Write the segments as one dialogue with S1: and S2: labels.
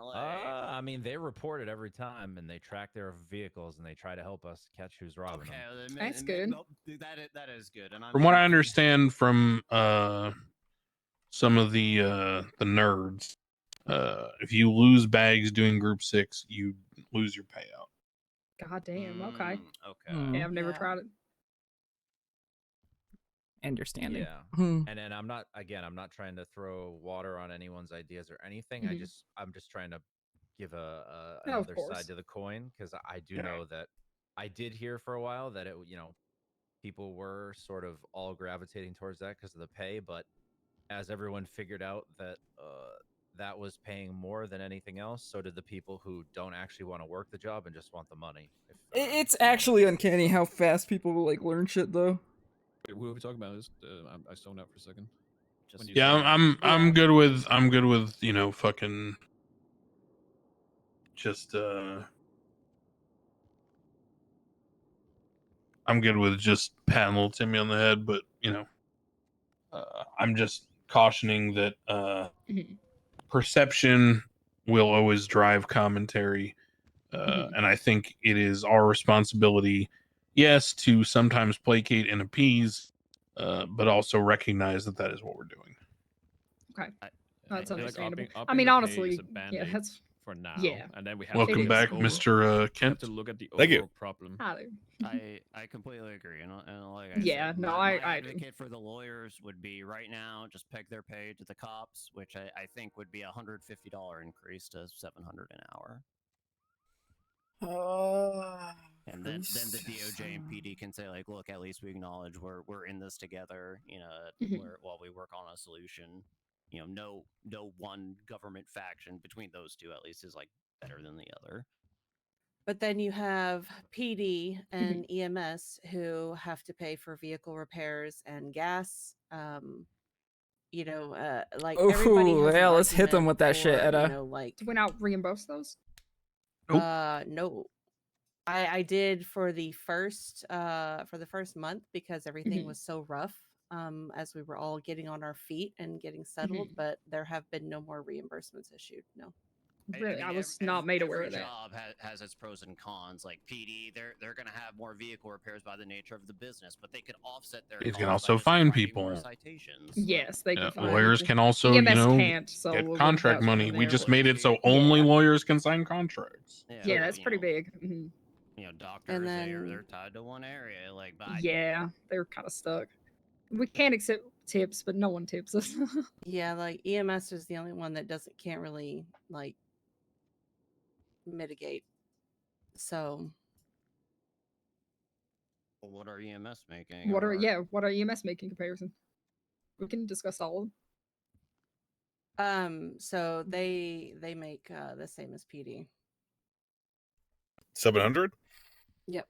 S1: LA.
S2: Uh, I mean, they report it every time, and they track their vehicles, and they try to help us catch who's robbing
S1: okay,
S2: them.
S1: well, then-
S3: That's
S1: then-
S3: good.
S1: well, th- that is, that is good. And I'm
S4: From what I
S1: happy.
S4: understand from uh, some of the uh, the nerds, uh, if you lose bags doing group six, you lose your payout.
S3: God damn. Okay.
S1: Mm, okay.
S4: Hmm.
S5: Mm.
S3: Yeah, I've never
S6: Yeah.
S3: tried it.
S5: Understanding.
S2: Yeah.
S3: Mm.
S5: Hmm.
S2: And then I'm not again. I'm not trying to throw water on anyone's ideas or anything. I
S3: Mhm.
S2: just I'm just trying to give a, a
S3: No, of
S2: another
S3: course.
S2: side to the coin because I do
S4: Yeah.
S2: know that I did hear for a while that it you know people were sort of all gravitating towards that because of the pay, but as everyone figured out that uh, that was paying more than anything else, so did the people who don't actually want to work the job and just want the money. If, uh,
S5: I- It's actually uncanny how fast people will like learn shit though.
S7: Wait, What are we talking about? Is uh, I'm- I stoned out for a second.
S1: Just
S7: you
S4: Yeah,
S7: said-
S4: I'm I'm, I'm good with I'm good with you know fucking just uh I'm good with just patting little Timmy on the head, but you know uh, I'm just cautioning that uh
S3: Mhm.
S4: perception will always drive commentary. Uh, And I think it is our responsibility, yes, to sometimes placate and appease, uh, but also recognize that that is what we're doing.
S3: No, that's
S7: I feel
S3: understandable.
S7: upping-
S3: I
S7: upping
S3: mean,
S7: the pay
S3: honestly,
S7: is a
S3: yeah,
S7: Band-Aid
S3: that's
S7: for now.
S3: yeah.
S7: and then we have
S4: Welcome
S3: is.
S7: to
S4: back,
S7: look over-
S4: Mr. Uh,
S7: We have
S4: Kent.
S7: to look at the overall
S8: Thank you.
S7: problem.
S3: either.
S1: I I completely agree, and, I- and like I
S3: Yeah,
S1: said,
S3: no,
S1: my- my
S3: I- I-
S1: advocate for the lawyers would be right now just peg their pay to the cops, which I, I think would be a hundred fifty dollar increase to seven hundred an hour,
S5: Uh,
S1: and then then the DOJ and PD can say like, look, at least we acknowledge we're we're in this together, you know,
S3: Mhm.
S1: we're, while we work on a solution, you know, no no one government faction between those two at least is like better than the other.
S6: But then you have PD
S5: Mm-hmm.
S6: and EMS who have to pay for vehicle repairs and gas. Um, you know, uh, like everybody
S5: Ooh,
S6: has an
S5: yeah, let's hit them
S6: argument
S5: with that shit,
S6: for, you
S5: Etta.
S6: know, like
S3: Do we not reimburse those?
S4: Nope.
S6: Uh, no. I I did for the first uh for the first month because everything
S5: Mm-hmm.
S3: Mhm.
S6: was so rough um as we were all getting on our feet and getting settled,
S5: Mm-hmm.
S6: but there have been no more reimbursements issued. No.
S3: Really, I
S1: mean,
S3: was
S1: ev-
S3: not
S1: ev-
S3: made aware
S1: every
S3: of that.
S1: Job has, has its pros and cons. Like PD, they're they're going to have more vehicle repairs by the nature of the business, but they could offset their.
S4: They can
S1: costs by
S4: also
S1: just
S4: fine
S1: writing more
S4: people.
S3: Mm-hmm.
S1: Citations. like-
S3: Yes, they can.
S4: Uh,
S3: find
S4: lawyers
S3: people.
S4: can also, you
S3: EMS
S4: know,
S3: can't, so
S4: get
S3: we'll leave
S4: contract
S3: that
S4: money.
S3: one
S4: We
S3: there,
S4: just
S3: but-
S4: made it so
S1: Yeah.
S4: only lawyers can sign contracts.
S3: Yeah,
S1: but,
S3: that's
S1: you
S3: pretty
S1: know,
S3: big. Mhm.
S1: You know, doctors they're,
S6: then-
S1: they're tied to one area. Like, but I-
S3: Yeah, they're kind of stuck. We can't accept tips, but no one tips us.
S6: Yeah, like EMS is the only one that doesn't can't really like mitigate. So
S1: well, what are EMS making?
S3: what are
S1: or-
S3: yeah? What are EMS making comparison? We can discuss all of them.
S6: um
S3: Mm-hmm.
S6: so they they make uh the same as PD.
S8: Seven hundred.
S4: Yep.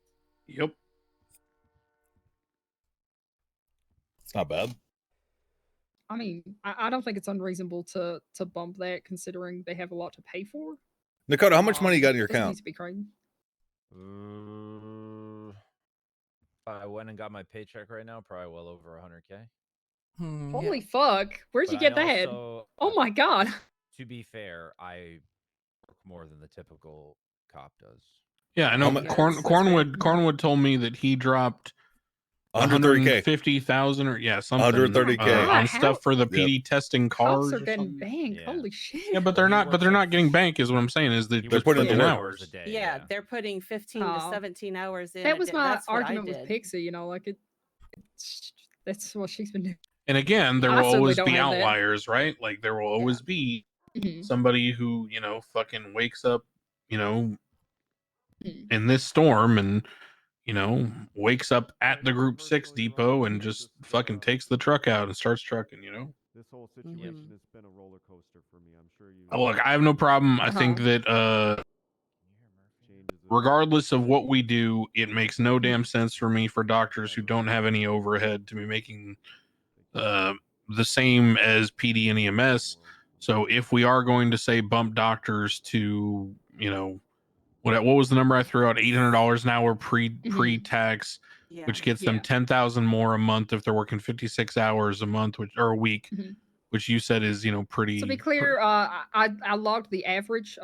S8: It's not bad.
S3: I mean, I, I don't think it's unreasonable to to bump that considering they have a lot to pay for.
S8: Dakota, how much money you got in your
S3: Doesn't need
S8: account?
S3: to be crazy.
S2: Uh, if I went and got my paycheck right now, probably well over 100k.
S5: hmm, yeah.
S3: Holy fuck! Where'd you
S2: But
S3: get
S2: I
S3: that?
S2: also- uh,
S3: Oh my god!
S2: To be fair, I work more than the typical cop does.
S4: Yeah, I know.
S8: mu-
S4: Corn,
S6: Yes, that's
S4: Cornwood Cornwood told me that he dropped
S8: 130k.
S4: 150,000 or yeah, something.
S8: 130K.
S4: uh,
S3: God,
S4: on
S3: how-
S4: stuff for the PD testing cars.
S3: Cops are
S4: or
S3: getting
S4: something.
S3: banged.
S2: Yeah.
S3: Holy shit!
S4: Yeah, but
S2: Well,
S4: they're
S2: he
S4: not. But
S2: works
S4: they're
S2: at-
S4: not getting bank. Is what I'm saying. Is that
S2: He
S4: they're
S2: works
S4: putting
S8: in
S4: in
S8: the
S2: four
S8: work.
S4: hours.
S2: a day.
S6: Yeah, they're putting 15 to
S3: Oh.
S6: 17 hours in. a
S3: that was
S6: day.
S3: my
S6: That's what I
S3: argument with
S6: did.
S3: Pixie. You know, like it. it's- That's what she's been doing.
S4: And again, there
S3: I
S4: will
S3: certainly
S4: always
S3: don't
S4: be
S3: have that.
S4: outliers, right? Like there will always be
S3: Mhm.
S4: somebody who you know fucking wakes up, you know,
S3: Mhm.
S4: in this storm and you know wakes up at the group six depot and just fucking takes the truck out and starts trucking. You know,
S9: This whole
S6: Mhm.
S9: situation has been a roller coaster for me. I'm sure you.
S4: Uh, look, I have no problem. I think
S3: Uh-huh.
S4: that uh
S9: Changes of-
S4: regardless of what we do, it makes no damn sense for me for doctors who don't have any overhead to be making uh, the same as PD and EMS. So if we are going to say bump doctors to, you know, what what was the number I threw out? Eight hundred dollars an hour pre pre tax,
S6: Yeah.
S4: which gets them
S3: Mm-hmm. Yeah.
S4: ten thousand more a month if they're working fifty six hours a month, which or a week,
S3: Mhm.
S4: which you said is you know pretty
S3: To be
S4: pre-
S3: clear, uh, I I I logged the average